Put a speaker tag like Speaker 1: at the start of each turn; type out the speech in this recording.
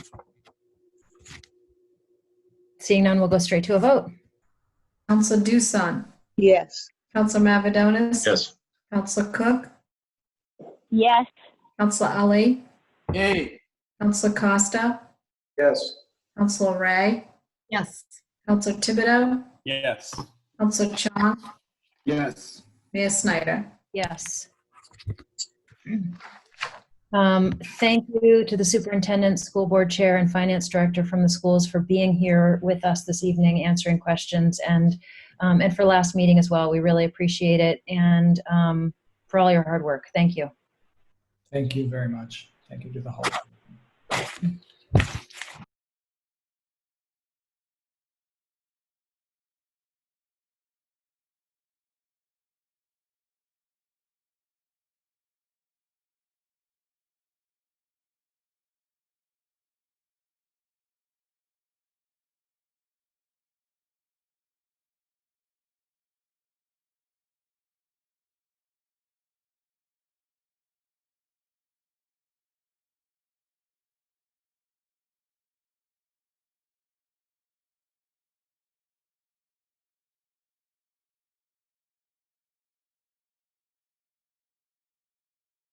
Speaker 1: Seeing none, we'll go straight to a vote.
Speaker 2: Council Dusan,
Speaker 3: Yes.
Speaker 2: Council Mavadonis.
Speaker 4: Yes.
Speaker 2: Council Cook,
Speaker 5: yes,
Speaker 2: Council Ali,
Speaker 6: Yay.
Speaker 2: Council Costa,
Speaker 4: Yes.
Speaker 2: Council Ray,
Speaker 7: yes,
Speaker 2: Council Thibodeau,
Speaker 6: Yes.
Speaker 2: Council Chong,
Speaker 6: Yes.
Speaker 2: Mayor Snyder.
Speaker 1: Yes. Um, Thank you to the superintendent, school board chair, and finance director from the schools for being here with us this evening, answering questions, and, um, and for last meeting as well. We really appreciate it, and um, for all your hard work. Thank you.
Speaker 8: Thank you very much. Thank you to the whole.